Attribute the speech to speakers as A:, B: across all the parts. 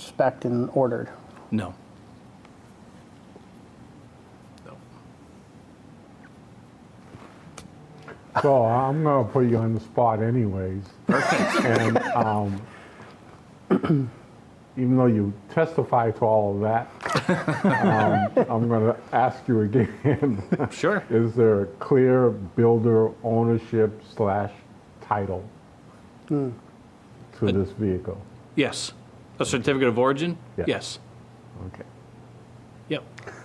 A: spec'd and ordered?
B: No. No.
C: So I'm going to put you on the spot anyways. And um, even though you testify to all of that, um, I'm going to ask you again.
B: Sure.
C: Is there a clear builder ownership slash title to this vehicle?
B: Yes. A certificate of origin?
C: Yeah.
B: Yes.
C: Okay.
B: Yep.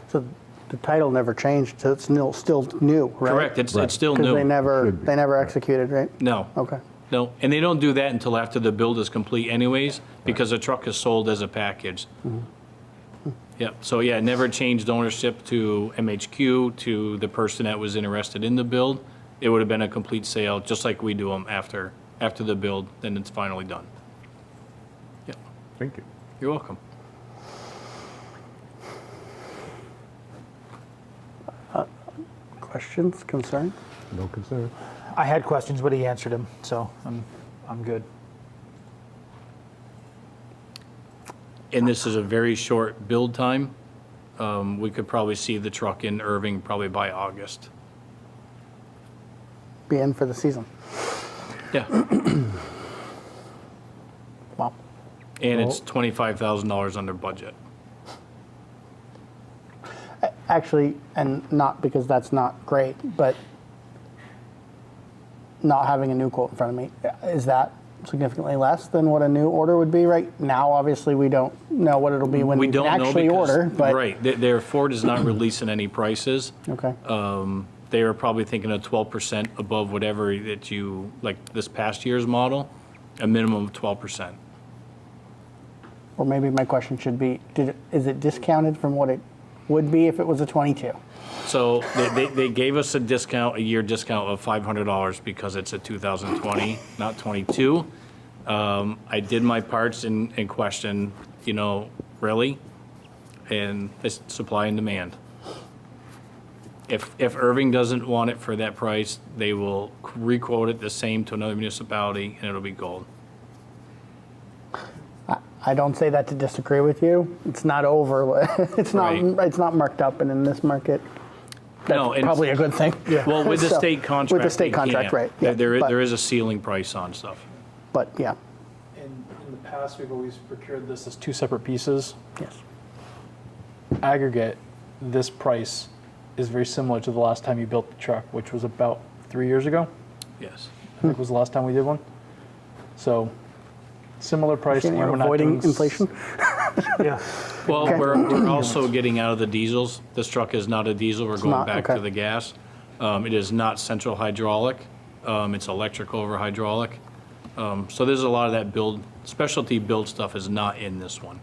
A: So the title never changed, so it's nil- still new, right?
B: Correct. It's,
C: Right.
B: it's still
A: Because they
B: new.
A: never,
C: Should be,
A: they never
C: right.
A: executed, right?
B: No.
A: Okay.
B: No, and they don't do that until after the build is complete anyways, because the truck is sold as a package.
A: Mm-hmm.
B: Yep, so yeah, never changed ownership to MHQ, to the person that was interested in the build. It would have been a complete sale, just like we do them after, after the build, then it's finally done. Yep,
C: Thank you.
B: you're welcome.
A: Questions, concerns?
C: No concern.
D: I had questions, but he answered them, so I'm, I'm good.
B: And this is a very short build time. Um, we could probably see the truck in Irving probably by August.
A: Be in for the season.
B: Yeah,
D: Wow.
B: and it's twenty-five thousand dollars under budget.
A: Actually, and not because that's not great, but not having a new quote in front of me, is that significantly less than what a new order would be right now? Obviously, we don't know what it'll be when
B: We
A: we can
B: don't know
A: actually
B: because-
A: order, but.
B: Right, their- their Ford is not releasing any prices.
A: Okay,
B: They are probably thinking of twelve percent above whatever that you, like this past year's model, a minimum of twelve percent.
A: or maybe my question should be, did, it- is it discounted from what it would be if it was a 22?
B: So they, they, they gave us a discount, a year discount of five hundred dollars because it's a two thousand twenty, not twenty-two. Um, I did my parts and, and questioned, you know, really? And it's supply and demand. If, if Irving doesn't want it for that price, they will requote it the same to another municipality and it'll be gold.
A: I don't say that to disagree with you. It's not over. It's not.
B: Right.
A: It's not marked up, and in this market, that's
B: No, and-
A: probably a good thing.
B: Well, with the
A: So,
B: state contract.
A: With the state
B: they
A: contract,
B: can't.
A: right?
B: There-
A: yeah,
B: There, is-
A: but,
B: there is a ceiling price on stuff.
A: But yeah,
E: In, in the past, we've always procured this as two separate pieces.
A: yes.
E: Aggregate, this price is very similar to the last time you built the truck, which was about three years ago.
B: Yes.
E: I
A: Hmm.
E: think was the last time we did one. So, similar price.
A: You're
E: and we're not
A: avoiding
E: doing s-
A: inflation.
D: Yeah.
B: Well,
A: Okay.
B: we're, we're also getting out of the diesels. This truck is not a diesel, we're going
A: not,
B: back to
A: okay.
B: the gas. Um, it is not central hydraulic, um, it's electric over hydraulic. Um, so there's a lot of that build, specialty build stuff is not in this one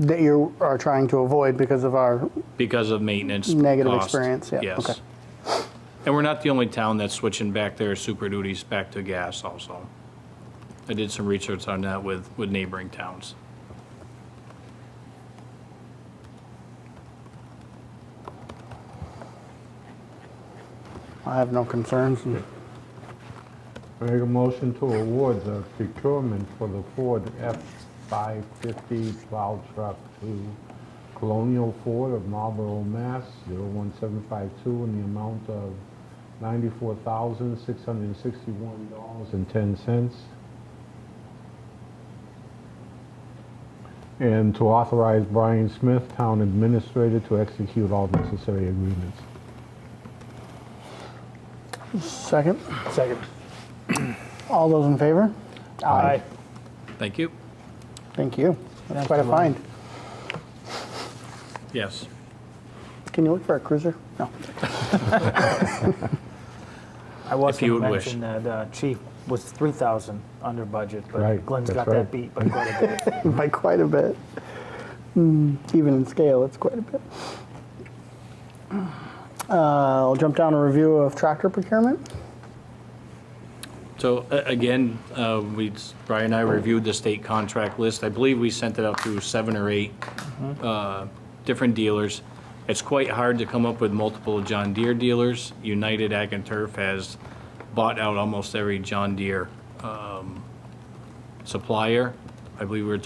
A: That you are trying to avoid because of our
B: because of maintenance.
A: Negative
B: cost.
A: experience, yeah, okay.
B: Yes. And we're not the only town that's switching back their super duties back to gas also. I did some research on that with, with neighboring towns.
A: I have no concerns.
C: I Make a motion to award the procurement for the Ford F-550 plow truck to Colonial Ford of Marlboro, Mass. 01752 in the amount of $94,661.10. And to authorize Brian Smith, Town Administrator, to execute all necessary agreements.
A: Second,
D: Second.
A: all those in favor?
D: Aye.
B: Thank you.
A: Thank you. That's
D: Thank
A: quite a
D: you, Ryan.
A: find.
B: Yes.
A: Can you look for a cruiser? No.
D: I was
B: you
D: going to
B: would wish.
D: mention that uh, Chief was 3,000 under budget, but
C: Right,
D: Glenn's
C: that's
D: got that
C: right.
D: beat by quite a bit.
A: by quite a bit. Mm, even in scale, it's quite a bit. Uh, I'll jump down to review of tractor procurement.
B: So a- again, uh, we, Brian and I reviewed the state contract list. I believe we sent it out to seven or eight uh, different dealers. It's quite hard to come up with multiple John Deere dealers. United Ag and Turf has bought out almost every John Deere um, supplier. I believe we were